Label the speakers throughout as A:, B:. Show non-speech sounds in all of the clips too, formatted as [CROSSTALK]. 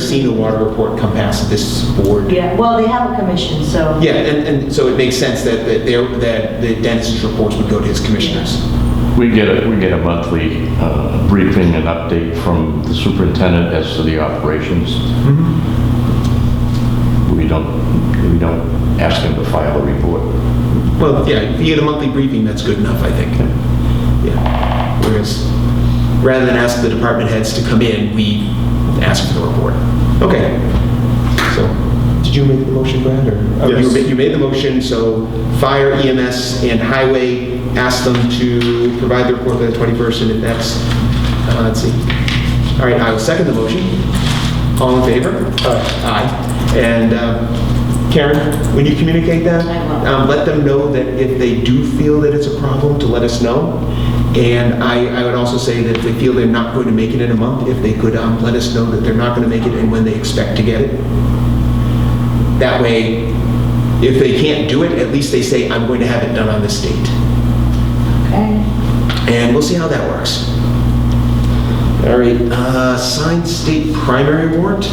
A: seen the water report come past this board.
B: Yeah, well, they have a commission, so.
A: Yeah, and, and so it makes sense that, that there, that the dentist's reports would go to his commissioners.
C: We get a, we get a monthly uh, briefing and update from the superintendent as to the operations. We don't, we don't ask him to file a report.
A: Well, yeah, if you get a monthly briefing, that's good enough, I think. Yeah. Whereas, rather than ask the department heads to come in, we ask for the report. Okay. So, did you make the motion, Brad, or? oh, you
D: Yes.
A: ma- You made the motion, so fire, EMS, and highway, ask them to provide the report by the 21st, and if that's, uh, let's see. All right, I will second the motion. All in favor? Aye. And um, Karen, when you communicate that,
B: I will.
A: um, let them know that if they do feel that it's a problem, to let us know. And I, I would also say that if they feel they're not going to make it in a month, if they could, um, let us know that they're not going to make it and when they expect to get it. That way, if they can't do it, at least they say, I'm going to have it done on this date.
B: Okay.
A: And we'll see how that works. All right, uh, signed state primary warrant.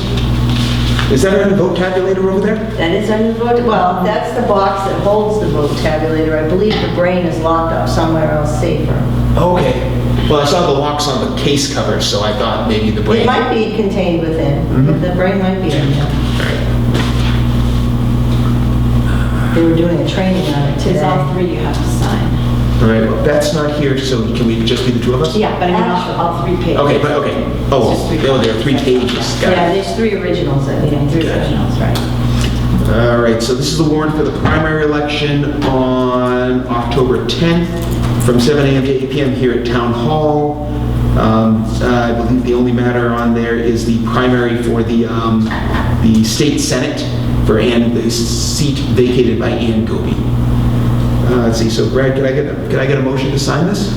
A: Is that our vote tabulator over there?
B: That is under the vote, well, that's the box that holds the vote tabulator. I believe the brain is locked up somewhere else safer.
A: Okay. Well, I saw the locks on the case cover, so I thought maybe the brain.
B: It might be contained within,
E: Mm-hmm.
B: but the brain might be in there. They were doing a training on it
E: It's
B: today.
E: all three you have to sign.
A: All right, well, Beth's not here, so can we just be the two of us?
E: Yeah, but I mean, all all three pages.
A: Okay, but, okay.
E: It's
A: Oh,
E: just three
A: well, there are three pages. Got it.
B: Yeah, there's three originals, I
E: Yeah,
B: think.
E: three
A: Got it.
E: originals, right.
A: All right, so this is the warrant for the primary election on October 10th from 7 AM to 8 PM here at Town Hall. Um, I believe the only matter on there is the primary for the, um, the state senate for Ann, the seat vacated by Ann Goby. Uh, Let's see, so Brad, can I get, a- can I get a motion to sign this?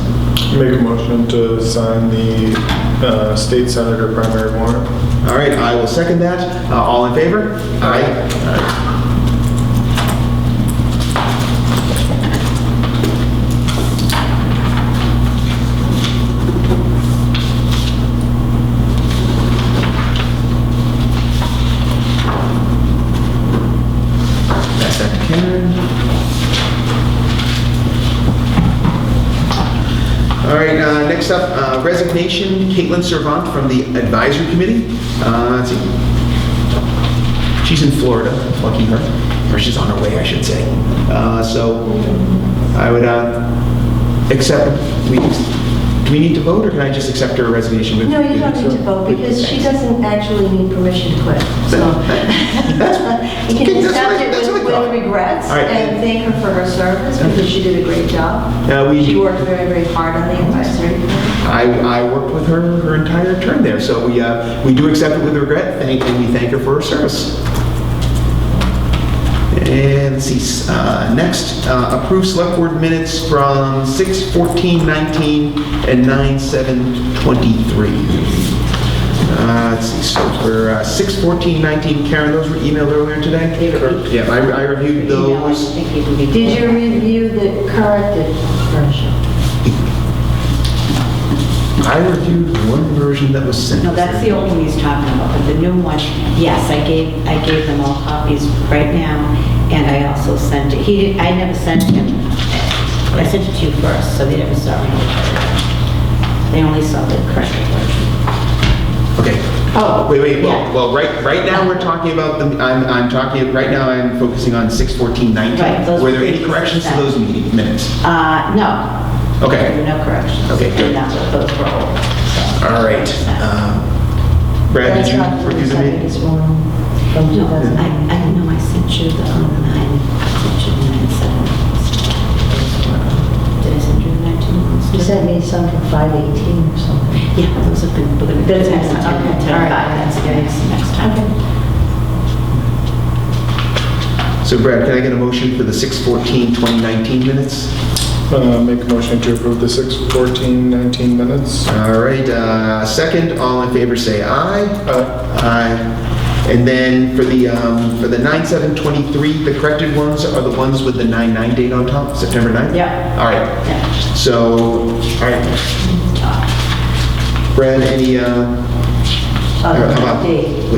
D: Make a motion to sign the uh, state senator primary warrant.
A: All right, I will second that. Uh, All in favor? Aye. Pass that to Karen. All right, uh, next up, uh, resignation, Caitlin Servant from the advisory committee. Uh, let's see. She's in Florida, lucky her, or she's on her way, I should say. Uh, So I would uh, accept, we, do we need to vote, or can I just accept her resignation? with-
B: No, you don't need to vote because she doesn't actually need permission to quit, so. [LAUGHS] You
A: Okay,
B: can
A: that's what I-
B: accept it
A: that's what
B: with
A: I
B: with
A: thought.
B: regrets
A: All right.
B: and thank her for her service because she did a great job.
A: Uh, we-
B: She worked very, very hard on the advisory committee.
A: I, I worked with her her entire term there, so we, uh, we do accept it with regret, thank, and we thank her for her service. And let's see, uh, next, uh, approve select board minutes from 6:14:19 and 9:7:23. Uh, Let's see, so for uh, 6:14:19, Karen, those were emailed earlier today?
B: They were.
A: Yeah, I I reviewed
E: Email, I
A: those.
E: think you can be-
B: Did you review the corrected version?
A: I reviewed one version that was sent.
E: No, that's the old one he's talking about, but the new one, yes, I gave, I gave them all copies right now, and I also sent it, he, didn't- I never sent him. I sent it to you first, so they never saw it. They only saw the corrected version.
A: Okay,
E: Oh,
A: Wait, wait, well,
E: yeah.
A: well, right, right now, we're talking about the, I'm, I'm talking, right now, I'm focusing on six fourteen nineteen.
E: Right, those
A: Were there
E: were
A: any corrections to
E: that.
A: those meeting minutes?
E: Uh, no.
A: Okay.
E: There were No corrections.
A: Okay, good.
E: And that's what those were all. so.
A: All right. um, Brad, did you review the meeting?
B: That's not the second one from
E: No,
B: 2000.
E: I, I know, I sent you the um, nine, I sent you the nine seven. Did I send you the nineteen ones?
B: You sent me some from 518 or something.
E: Yeah, those have been, we're gonna.
B: That's
E: do
B: next time.
E: ten,
B: Okay,
E: ten,
B: all right.
E: five, That's the next, next time.
A: So Brad, can I get a motion for the six fourteen twenty nineteen minutes?
D: Uh, Make a motion to approve the 6/14/19 minutes.
A: All right, uh, second, all in favor, say aye. Aye. And then for the, um, for the nine seven twenty-three, the corrected ones are the ones with the nine nine date on top, September 9th?
E: Yeah.
A: All right,
E: Yeah.
A: so, all right. Brad, any, uh,
B: Oh,
A: How about-
B: date.